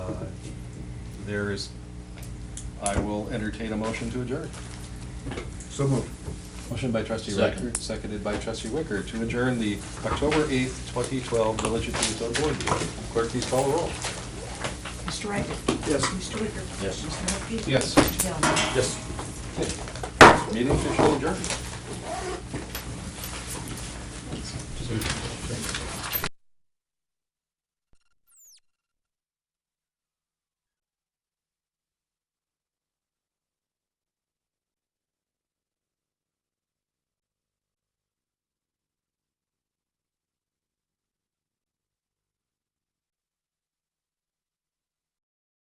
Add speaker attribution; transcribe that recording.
Speaker 1: Uh, there is, I will entertain a motion to adjourn.
Speaker 2: So moved.
Speaker 1: Motion by trustee
Speaker 3: Second.
Speaker 1: Riker, seconded by trustee Wicker, to adjourn the October eighth, twenty twelve Village of Tombstone Board meeting. Clerk, please call the roll.
Speaker 4: Mr. Riker?
Speaker 2: Yes.
Speaker 4: Mr. Wicker?
Speaker 3: Yes.
Speaker 4: Mr. Hupkey?
Speaker 1: Yes.
Speaker 4: Mr. Bellman?
Speaker 3: Yes.
Speaker 1: Meeting officially adjourned.